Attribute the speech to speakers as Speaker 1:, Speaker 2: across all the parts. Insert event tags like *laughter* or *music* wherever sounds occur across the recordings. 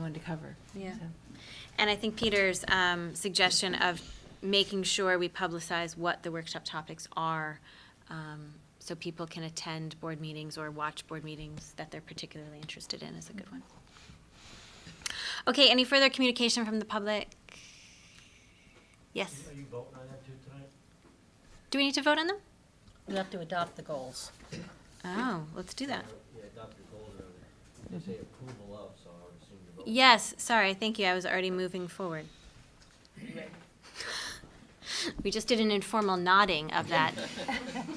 Speaker 1: wanted to cover.
Speaker 2: Yeah.
Speaker 1: so.
Speaker 2: And I think Peter's um, suggestion of making sure we publicize what the workshop topics are, um, so people can attend board meetings or watch board meetings that they're particularly interested in is a good one. Okay, any further communication from the public? Yes.
Speaker 3: Are you voting on that too tonight?
Speaker 2: Do we need to vote on them?
Speaker 4: You have to adopt the goals.
Speaker 2: Oh, let's do that.
Speaker 3: Yeah, Dr. Gold, uh, you say approval of, so I would assume you're voting.
Speaker 2: Yes, sorry, thank you, I was already moving forward. We just did an informal nodding of *laughs* that.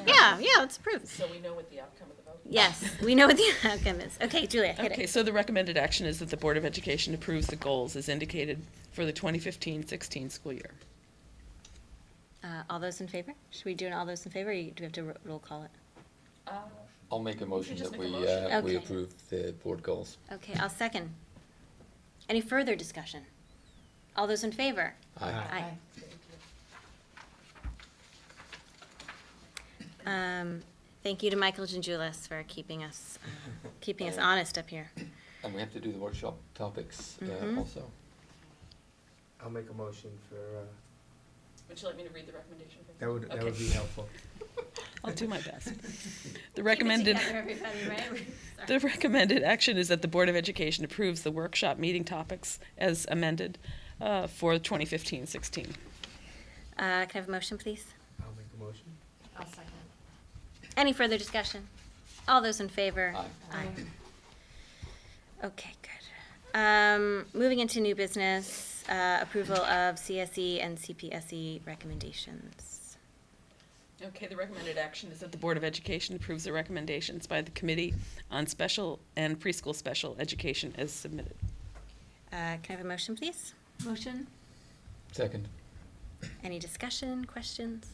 Speaker 2: Yeah, yeah, it's approved.
Speaker 5: So we know what the outcome of the vote is.
Speaker 2: Yes, we know what the *laughs* outcome is. Okay, Julia, hit
Speaker 6: Okay,
Speaker 2: it.
Speaker 6: so the recommended action is that the Board of Education approves the goals as indicated for the 2015-16 school year.
Speaker 2: Uh, all those in favor? Should we do an all those in favor, or you- do we have to ro- roll call it?
Speaker 5: Uh,
Speaker 7: I'll make a motion
Speaker 5: just
Speaker 7: that
Speaker 5: make a
Speaker 7: we,
Speaker 5: motion.
Speaker 7: uh, we
Speaker 2: Okay.
Speaker 7: approve the board goals.
Speaker 2: Okay, I'll second. Any further discussion? All those in favor?
Speaker 7: Aye.
Speaker 2: Aye. Um, thank you to Michael Gingulis for keeping us, uh, keeping us honest up here.
Speaker 7: And we have to do the workshop topics uh,
Speaker 2: Mhm.
Speaker 7: also.
Speaker 8: I'll make a motion for, uh,
Speaker 5: Would you like me to read the recommendation? first?
Speaker 8: that would, that would
Speaker 5: Okay.
Speaker 8: be helpful.
Speaker 6: *laughs* I'll do my
Speaker 8: *laughs*
Speaker 6: best. The recommended, *laughs*
Speaker 2: *laughs*
Speaker 6: the recommended action is that the Board of Education approves the workshop meeting topics as amended uh, for 2015-16.
Speaker 2: Uh, can I have a motion, please?
Speaker 8: I'll make a motion.
Speaker 2: Any further discussion? All those in favor?
Speaker 7: Aye.
Speaker 2: Aye. Okay, good. Um, moving into new business, uh, approval of CSE and CPSE E recommendations.
Speaker 6: Okay, the recommended action is that the Board of Education approves the recommendations by the Committee on Special and Preschool Special Education as submitted.
Speaker 2: Uh, can I have a motion, please?
Speaker 1: Motion?
Speaker 7: Second.
Speaker 2: Any discussion, questions?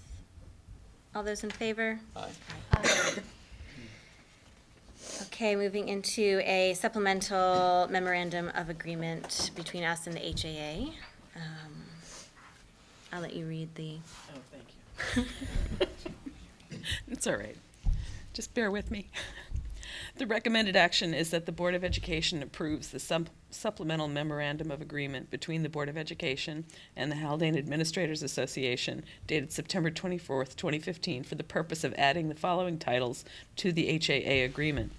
Speaker 2: All those in favor?
Speaker 7: Aye.
Speaker 2: Okay, moving into a supplemental memorandum of agreement between us and the HAA. Um, I'll let you read the
Speaker 5: Oh, thank you.
Speaker 6: *laughs* It's all right. Just bear with me. The recommended action is that the Board of Education approves the sup- supplemental memorandum of agreement between the Board of Education and the Haldane Administrators Association dated September 24th, 2015, for the purpose of adding the following titles to the HAA agreement.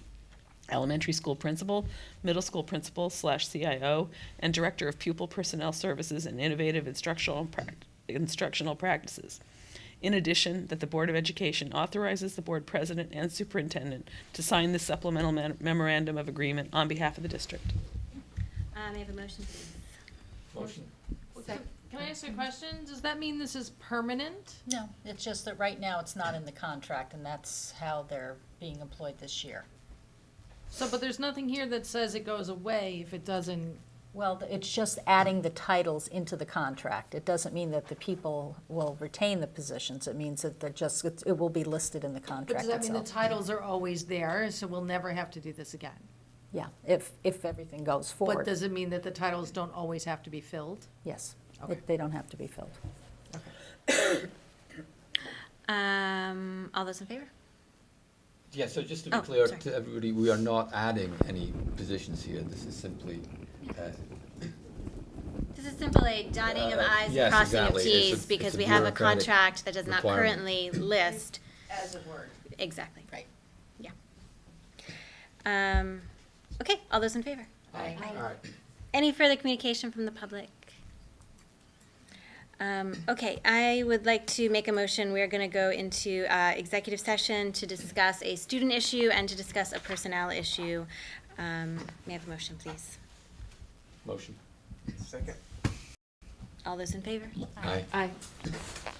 Speaker 6: Elementary school principal, middle school principal slash CIO, and director of pupil personnel services and innovative instructional, prac- instructional practices. In addition, that the Board of Education authorizes the board president and superintendent to sign the supplemental mem- memorandum of agreement on behalf of the district.
Speaker 2: Uh, may I have a motion, please?
Speaker 7: Motion.
Speaker 9: Can I ask a question? Does that mean this is permanent?
Speaker 4: No, it's just that right now it's not in the contract, and that's how they're being employed this year.
Speaker 9: So, but there's nothing here that says it goes away if it doesn't.
Speaker 4: Well, th- it's just adding the titles into the contract. It doesn't mean that the people will retain the positions. It means that they're just, it's- it will be listed in the
Speaker 9: But
Speaker 4: contract
Speaker 9: does that mean the
Speaker 4: itself.
Speaker 9: titles are always there, so we'll never have to do this again?
Speaker 4: Yeah, if, if everything goes
Speaker 9: But
Speaker 4: forward,
Speaker 9: does it mean that the titles don't always have to be filled?
Speaker 4: yes.
Speaker 9: Okay.
Speaker 4: It- They don't have to be filled.
Speaker 2: Um, all those in favor?
Speaker 7: Yeah, so just to be
Speaker 2: Oh,
Speaker 7: clear
Speaker 2: sorry.
Speaker 7: to everybody, we are not adding any positions here. This is simply, uh,
Speaker 2: This is simply dotting of
Speaker 7: Uh,
Speaker 2: i's and
Speaker 7: yes,
Speaker 2: crossing of
Speaker 7: exactly. It's a-
Speaker 2: t's, because
Speaker 7: it's a
Speaker 2: we have a
Speaker 7: bureaucratic
Speaker 2: contract that does not
Speaker 7: requirement. *laughs*
Speaker 2: currently list,
Speaker 5: As a word.
Speaker 2: exactly.
Speaker 4: Right.
Speaker 2: Yeah. Um, okay, all those in favor?
Speaker 8: All right.
Speaker 2: Any further communication from the public? Um, okay, I would like to make a motion. We're going to go into uh, executive session to discuss a student issue and to discuss a personnel issue. Um, may I have a motion, please?
Speaker 7: motion.
Speaker 8: Second.
Speaker 2: All those in favor?
Speaker 7: Aye.
Speaker 9: Aye.